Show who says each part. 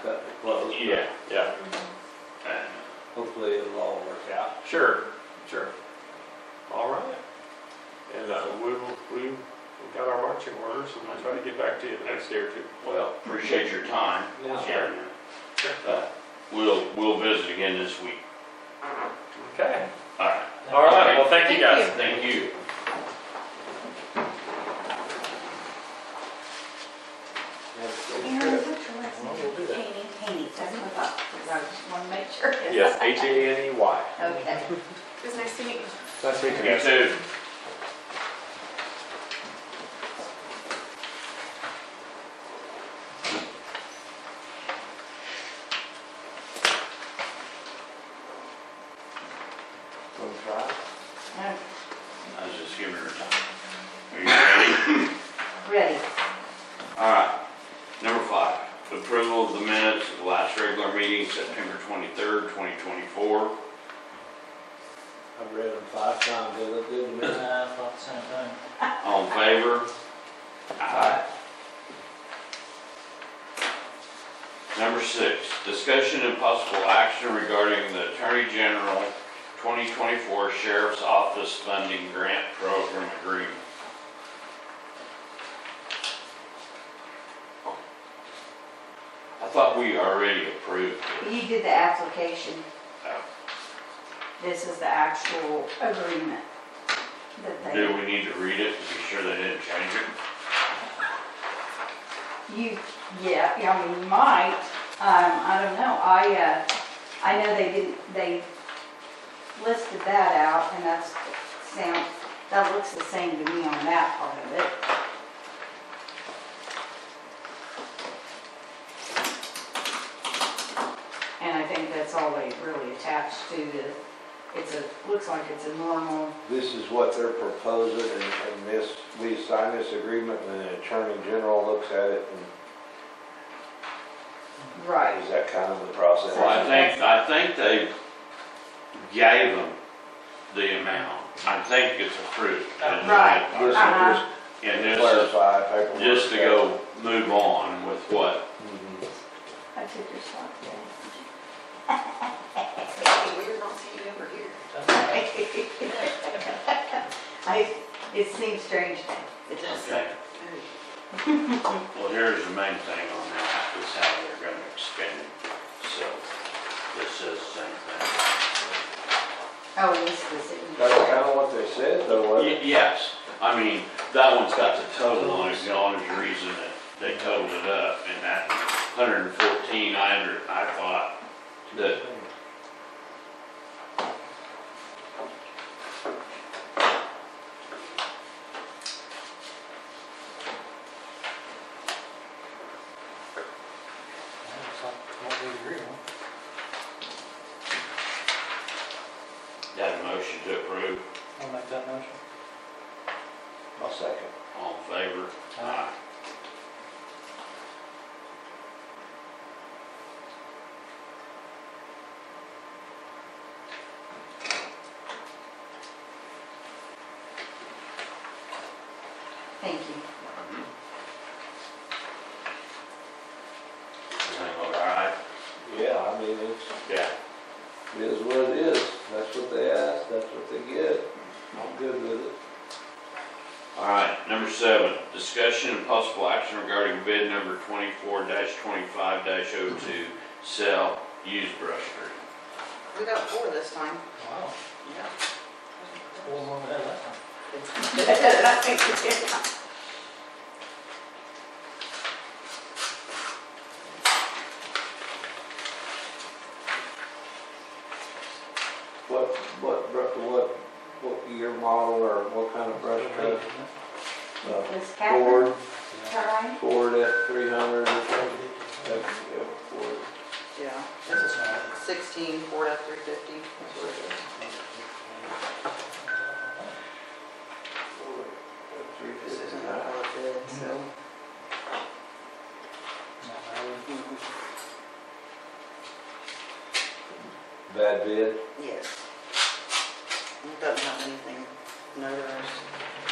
Speaker 1: cut it close. but
Speaker 2: Yeah, yeah,
Speaker 3: Mm-hmm.
Speaker 1: Hopefully it'll all work out.
Speaker 2: sure, sure. All right. And uh, we will, we we got our marching orders, and we'll try to get back to you the next day or two.
Speaker 3: Well, appreciate your time.
Speaker 1: Yeah.
Speaker 3: And, uh, We'll, we'll visit again this week.
Speaker 2: Okay.
Speaker 3: All right,
Speaker 2: All right, well, thank you
Speaker 4: Thank
Speaker 2: guys.
Speaker 4: you.
Speaker 3: thank you.
Speaker 4: Aaron, what's your last
Speaker 2: Well,
Speaker 4: name?
Speaker 2: we'll do that.
Speaker 4: Haney, Haney, that's what I thought, 'cause I just want to make sure.
Speaker 2: Yes, H A N E Y.
Speaker 4: Okay. It was nice to meet you.
Speaker 2: Nice meeting
Speaker 3: You too.
Speaker 4: I'm
Speaker 3: I was just giving her time. Are you ready?
Speaker 4: Ready.
Speaker 3: All right. Number five, approval of the minutes of the last regular meeting, September 23rd, 2024.
Speaker 1: I've read them five times, they look good to me.
Speaker 5: I thought the same thing.
Speaker 3: All in favor? Aye. Number six, discussion and possible action regarding the Attorney General 2024 Sheriff's Office Funding Grant Program Agreement. I thought we already approved it.
Speaker 4: You did the application.
Speaker 3: Oh.
Speaker 4: This is the actual agreement that
Speaker 3: Do
Speaker 4: they,
Speaker 3: we need to read it to be sure they didn't change it?
Speaker 4: you, yeah, yeah, I mean, you might, um, I don't know, I, uh, I know they didn't, they listed that out, and that's, sounds, that looks the same to me on that part of it. And I think that's all they really attached to the, it's a, looks like it's a normal
Speaker 6: This is what they're proposing, and and this, we sign this agreement, and the Attorney General looks at it, and
Speaker 4: Right,
Speaker 6: is that kind of the process?
Speaker 3: Well, I think, I think they gave them the amount. I think it's approved.
Speaker 4: Right.
Speaker 6: This is
Speaker 4: Uh-huh.
Speaker 6: just
Speaker 3: And
Speaker 6: to
Speaker 3: this is
Speaker 6: clarify paperwork.
Speaker 3: just to go move on with what,
Speaker 6: Mhm.
Speaker 4: I took your spot there.
Speaker 7: We don't see you over here.
Speaker 4: I, it seems strange to
Speaker 3: okay. Well, here's the main thing on that, is how they're gonna expend it. So this says the same thing.
Speaker 4: Oh, and this was it.
Speaker 6: That's kind of what they said, though, wasn't
Speaker 3: Y- Yes, I mean, that one's got the total on it, the only reason that they totaled it up and that hundred and fourteen, I under, I thought that
Speaker 6: it?
Speaker 5: It's like what we agree on.
Speaker 3: Got a motion to approve,
Speaker 5: I'll make that motion.
Speaker 6: I'll second.
Speaker 3: all in favor? Aye.
Speaker 4: Thank you.
Speaker 3: Everything look all right?
Speaker 6: Yeah, I mean, it's,
Speaker 3: Yeah.
Speaker 6: it is what it is, that's what they asked, that's what they get, I'm good with it.
Speaker 3: All right, number seven, discussion and possible action regarding bid number twenty-four twenty-five oh 2 sell used brush cream.
Speaker 7: We got four this time.
Speaker 5: Wow,
Speaker 7: Yeah.
Speaker 5: four more than that last time.
Speaker 6: What, what, br- what, what year model or what kind of brush
Speaker 5: Three,
Speaker 6: cut?
Speaker 5: isn't it?
Speaker 6: Uh,
Speaker 4: Was Catherine,
Speaker 6: Ford,
Speaker 4: is that right?
Speaker 6: Ford F three hundred or something?
Speaker 5: Three,
Speaker 6: That's, yeah, Ford.
Speaker 7: Yeah,
Speaker 5: That's a small.
Speaker 7: sixteen, Ford F three fifty. That's what it is. This isn't a hard bid, so.
Speaker 6: Bad bid.
Speaker 7: Yes. It doesn't have anything notarized.